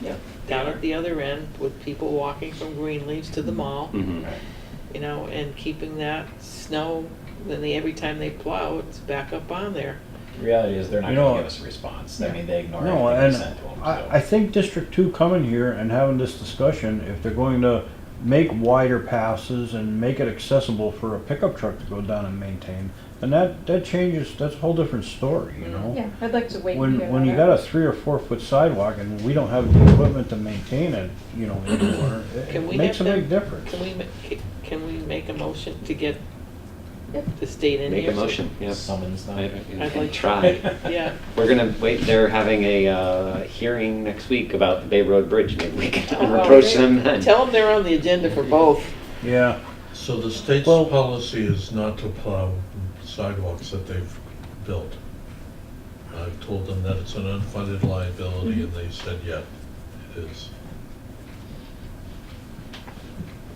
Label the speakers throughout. Speaker 1: yeah, down at the other end with people walking from Greenleaf's to the mall,
Speaker 2: Mhm.
Speaker 1: you know, and keeping that snow, then they, every time they plow, it's back up on there.
Speaker 3: The reality is they're not
Speaker 4: You
Speaker 3: going
Speaker 4: know-
Speaker 3: to give us a response. I mean, they ignore
Speaker 4: No,
Speaker 3: everything
Speaker 4: and
Speaker 3: we send to them. so.
Speaker 4: I, I think District Two coming here and having this discussion, if they're going to make wider passes and make it accessible for a pickup truck to go down and maintain, then that, that changes, that's a whole different story, you know?
Speaker 5: Yeah, I'd like to wait. and hear
Speaker 4: When, when you
Speaker 5: that
Speaker 4: got a
Speaker 5: out.
Speaker 4: three or four foot sidewalk and we don't have the equipment to maintain it, you know, anymore, it-
Speaker 1: Can
Speaker 4: it
Speaker 1: we
Speaker 4: makes a
Speaker 1: have them-
Speaker 4: big difference.
Speaker 1: Can we, ma- can we make a motion to get
Speaker 5: Yep.
Speaker 1: the state in here?
Speaker 2: Make a
Speaker 1: so-
Speaker 2: motion, yep.
Speaker 3: Someone's not.
Speaker 2: I-
Speaker 1: I'd
Speaker 2: I-
Speaker 1: like-
Speaker 2: Try.
Speaker 1: Yeah,
Speaker 2: We're gonna wait, they're having a uh, hearing next week about the Bay Road Bridge. Maybe we can
Speaker 1: Oh,
Speaker 2: approach
Speaker 1: great.
Speaker 2: them then.
Speaker 1: tell them they're on the agenda for both.
Speaker 4: Yeah,
Speaker 6: So the state's
Speaker 4: Well-
Speaker 6: policy is not to plow sidewalks that they've built. I've told them that it's an unfunded liability,
Speaker 5: Mm-hmm.
Speaker 6: and they said, yeah, it is.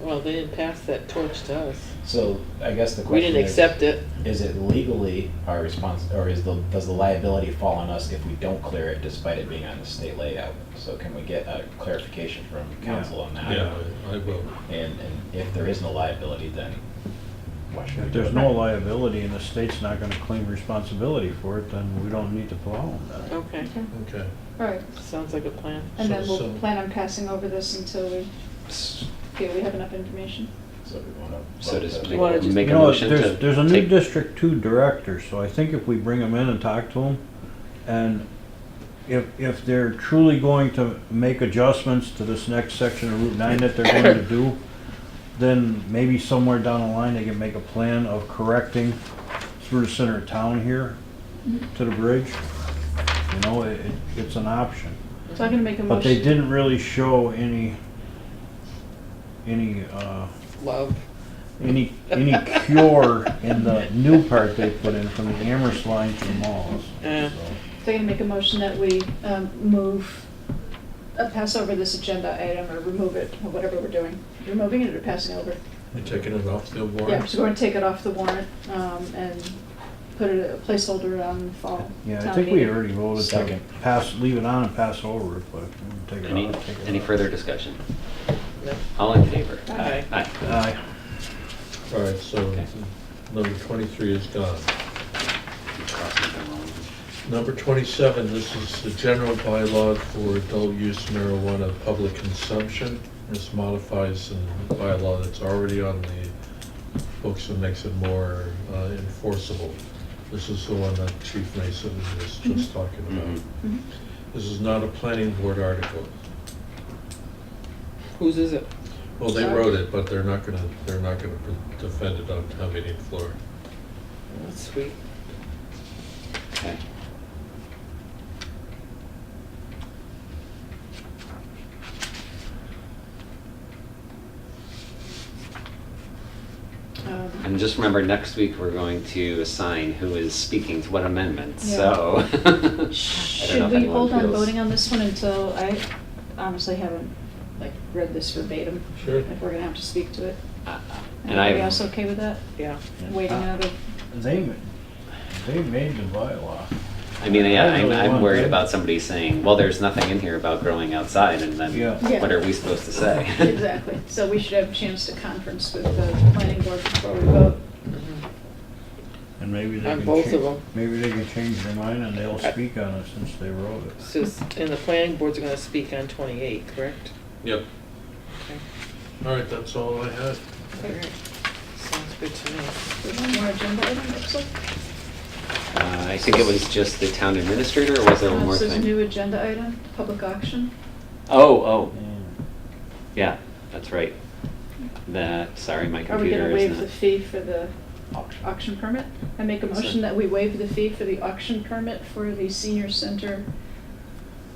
Speaker 1: Well, they didn't pass that torch to us.
Speaker 3: So I guess the question
Speaker 1: We didn't
Speaker 3: is,
Speaker 1: accept it.
Speaker 3: is it legally our response, or is the does the liability fall on us if we don't clear it, despite it being on the state layout? So can we get a clarification from council on that?
Speaker 6: Yeah, I I will.
Speaker 3: And, and if there is no liability, then what should we
Speaker 4: if
Speaker 3: do?
Speaker 4: there's no liability and the state's not gonna claim responsibility for it, then we don't need to plow them then.
Speaker 1: Okay,
Speaker 5: Okay,
Speaker 6: Okay.
Speaker 5: all right.
Speaker 1: sounds like a plan.
Speaker 5: And then
Speaker 6: So-
Speaker 5: we'll
Speaker 6: so-
Speaker 5: plan on passing over this until we
Speaker 3: So
Speaker 5: feel we have enough information.
Speaker 3: we want to.
Speaker 2: So does
Speaker 1: You wanna just-
Speaker 2: make
Speaker 4: You
Speaker 2: a
Speaker 4: know,
Speaker 2: motion to
Speaker 4: there's- There's a new
Speaker 2: take-
Speaker 4: District Two director, so I think if we bring him in and talk to him, and if, if they're truly going to make adjustments to this next section of Route Nine that they're going to do, then maybe somewhere down the line, they can make a plan of correcting through the center of town here to the bridge. You know, it, it- it's an option.
Speaker 5: So I'm gonna make a motion.
Speaker 4: But they didn't really show any, any, uh,
Speaker 1: Love.
Speaker 4: any, any cure in the new part they put in from the Amherst line to the malls.
Speaker 5: They're
Speaker 1: Uh,
Speaker 5: gonna make a motion that we um, move, uh, pass over this agenda item or remove it, or whatever we're doing. Removing it or passing over?
Speaker 6: You're taking it off the
Speaker 5: Yeah,
Speaker 6: warrant?
Speaker 5: so we're gonna take it off the warrant um, and put it, a placeholder on fall.
Speaker 4: Yeah, I
Speaker 5: town
Speaker 4: think we
Speaker 5: meeting.
Speaker 4: already voted to
Speaker 3: Second.
Speaker 4: pass, leave it on and pass over it, but we'll take it
Speaker 2: Any,
Speaker 4: off. take it
Speaker 2: any
Speaker 4: off.
Speaker 2: further discussion?
Speaker 1: no.
Speaker 2: All in favor?
Speaker 1: Aye.
Speaker 2: Aye.
Speaker 4: Aye.
Speaker 6: All right, so
Speaker 2: Okay.
Speaker 6: number 23 is gone. Number 27, this is the general bylaw for adult-use marijuana public consumption. This modifies a bylaw that's already on the books and makes it more uh, enforceable. This is the one that Chief Mason was just talking about.
Speaker 2: Mhm.
Speaker 5: Mhm.
Speaker 6: This is not a planning board article.
Speaker 1: Whose is it?
Speaker 6: Well, they
Speaker 5: Sorry.
Speaker 6: wrote it, but they're not gonna, they're not gonna defend it on town meeting floor.
Speaker 1: That's Sweet.
Speaker 2: Okay.
Speaker 5: Um,
Speaker 2: And just remember, next week, we're going to assign who is speaking to what amendment,
Speaker 5: Yeah.
Speaker 2: so. I don't know if
Speaker 5: Should we
Speaker 2: anyone
Speaker 5: hold on
Speaker 2: feels-
Speaker 5: voting on this one until, I honestly haven't, like, read this verbatim,
Speaker 6: Sure.
Speaker 5: if we're gonna have to speak to it.
Speaker 2: Uh, And
Speaker 5: Anybody
Speaker 2: I,
Speaker 5: else okay with that?
Speaker 1: Yeah.
Speaker 5: Waiting out of,
Speaker 4: They, ma- they made the bylaw.
Speaker 2: I mean, yeah,
Speaker 4: I
Speaker 2: I'm,
Speaker 4: really
Speaker 2: I'm
Speaker 4: want
Speaker 2: worried
Speaker 4: to.
Speaker 2: about somebody saying, well, there's nothing in here about growing outside, and
Speaker 4: Yeah.
Speaker 2: then
Speaker 5: Yeah.
Speaker 2: what are we supposed to say?
Speaker 5: exactly, so we should have a chance to conference with the planning board before we vote.
Speaker 1: Mhm.
Speaker 4: And maybe they
Speaker 1: On
Speaker 4: can
Speaker 1: both
Speaker 4: change-
Speaker 1: of 'em.
Speaker 4: Maybe they can change their mind and they'll speak on it since they wrote it.
Speaker 1: So, s- and the planning board's gonna speak on twenty-eight, correct?
Speaker 6: Yep.
Speaker 1: Okay.
Speaker 6: All right, that's all I had.
Speaker 1: All right. Sounds good to me.
Speaker 5: There's one more agenda item, looks like.
Speaker 2: Uh, I think it was just the town administrator, or was there one
Speaker 5: Uh,
Speaker 2: more
Speaker 5: so there's a
Speaker 2: thing?
Speaker 5: new agenda item, public auction.
Speaker 2: Oh, oh,
Speaker 4: And-
Speaker 2: yeah, that's right. That, sorry, my
Speaker 5: Are we gonna
Speaker 2: computer is
Speaker 5: waive
Speaker 2: not.
Speaker 5: the fee for the
Speaker 3: Auction.
Speaker 5: auction permit? I make a
Speaker 2: Sure.
Speaker 5: motion that we waive the fee for the auction permit for the senior center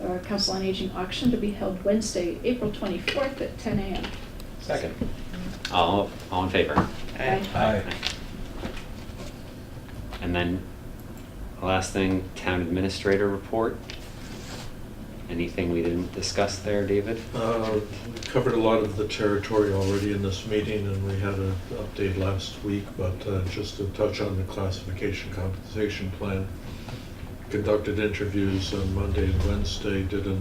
Speaker 5: uh, council on aging auction to be held Wednesday, April 24th at 10 a.m.
Speaker 3: Second.
Speaker 2: All, all in favor?
Speaker 1: Aye.
Speaker 4: Aye.
Speaker 2: And then, the last thing, town administrator report. Anything we didn't discuss there, David?
Speaker 6: Uh, We Covered a lot of the territory already in this meeting, and we had an update last week, but uh, just to touch on the classification compensation plan. Conducted interviews on Monday and Wednesday, did an